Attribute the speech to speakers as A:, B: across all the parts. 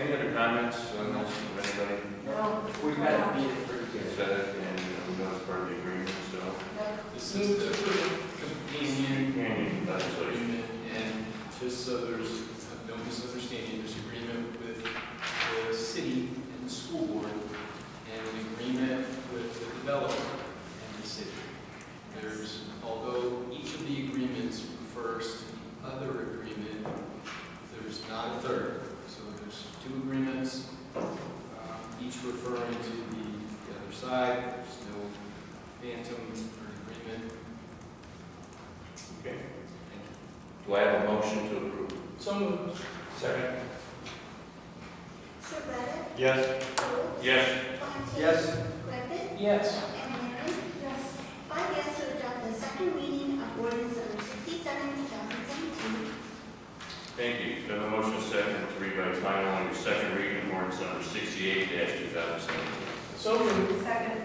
A: uh,
B: Since they're pretty
A: Union, that's what you-
B: agreement, and just so there's no misunderstanding, there's agreement with the city and the school board, and an agreement with the developer and the city. There's, although each of the agreements refers to the other agreement, there's not a third. So there's two agreements, um, each referring to the the other side, there's no phantom or agreement.
A: Okay.
B: Thank you.
A: Do I have a motion to approve?
B: So moved.
A: Second.
C: Surratt,
A: Yes.
C: Golds,
A: Yes.
C: Fontaine.
B: Yes.
C: Griffin,
B: Yes.
C: and Aaron. Yes. Five yes to adopt the second reading of ordinance number sixty-seven, two thousand seventeen.
A: Thank you. Do I have a motion second to read by title only, second reading, ordinance number sixty-eight two thousand seventeen?
B: So moved.
C: Second.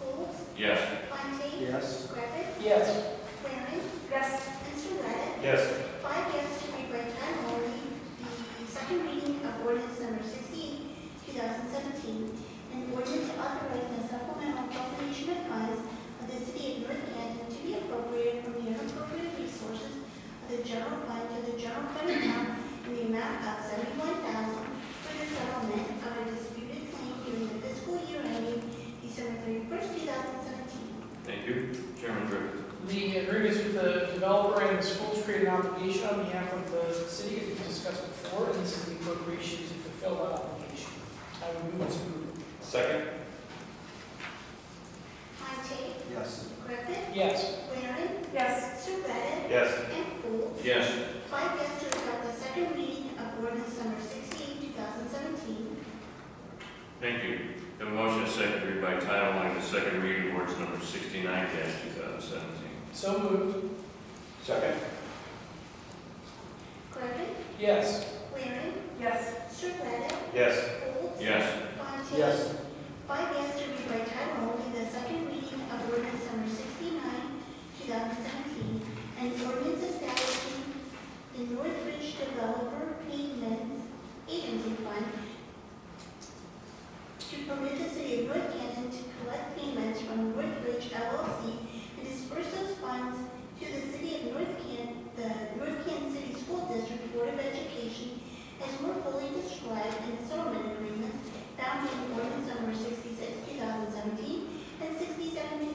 C: Golds,
A: Yes.
C: Fontaine.
B: Yes.
C: Griffin,
B: Yes.
C: Waring. Yes. And Surratt,
A: Yes.
C: five yes to read by title only the second reading of ordinance number sixty-eight, two thousand seventeen, an ordinance authorizing the supplemental appropriation of funds of the city of North Canton to be appropriated from the unappropriated resources of the general fund to the general fund account in the amount of seventy-one thousand for the settlement of a disputed claim during the fiscal year ending December thirty-first, two thousand seventeen.
A: Thank you. Chairman Griffin.
D: The agreement is with the developer and the schools created an obligation on behalf of the city, as we discussed before, and this is the appropriation to fulfill that obligation. I would move to,
A: Second.
C: Fontaine,
B: Yes.
C: Griffin,
D: yes,
C: Waring. Yes. Surratt,
A: Yes.
C: and Golds.
A: Yes.
C: Five yes to adopt the second reading of ordinance number 68, 2017.
A: Thank you. Do I have a motion second to read by title only, the second reading, ordinance number sixty-nine two thousand seventeen?
D: so moved,
A: Second.
C: Griffin,
D: yes,
C: Waring,
E: Yes,
C: Surratt,
A: Yes.
C: Golds.
A: Yes.
C: Fontaine. Five yes to read by title only the second reading of ordinance number 69, 2017, and ordinance establishing the Northridge Developer Payments Agency Fund to permit the city of North Canton to collect payments from Northridge LLC and disperse those funds to the city of North Canton, the North Canton City School District Board of Education as more fully described in the settlement agreement found in ordinance number 66, 2017, and 67, 2017.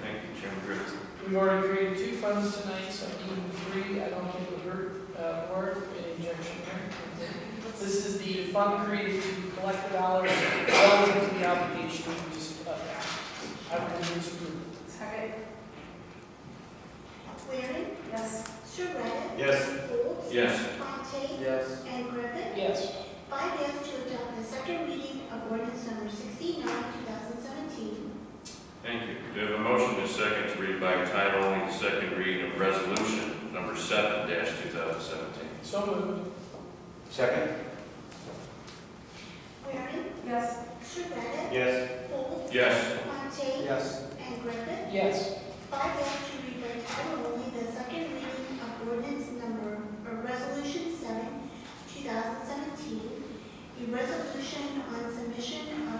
A: Thank you, Chairman Griffin.
D: we've already created two funds tonight, so even three, I don't think would hurt, uh, or an injection here. This is the fund created to collect the dollars relative to the obligation we just, uh, I would move to approve.
E: second,
C: Waring,
E: yes,
C: Surratt.
A: Yes.
C: Golds.
A: Yes.
C: Fontaine.
B: Yes.
C: And Griffin.
D: Yes.
C: Five yes to adopt the second reading of ordinance number 69, 2017.
A: Thank you. Do we have a motion to second to read by title only, the second reading of resolution number seven two thousand seventeen?
D: So moved,
A: Second.
C: Waring,
E: yes,
C: Surratt.
A: Yes.
C: Golds.
A: Yes.
C: Fontaine.
B: Yes.
C: And Griffin.
D: yes,
C: Five yes to read by title only the second reading of ordinance number, or resolution seven, two thousand seventeen, a resolution on submission of E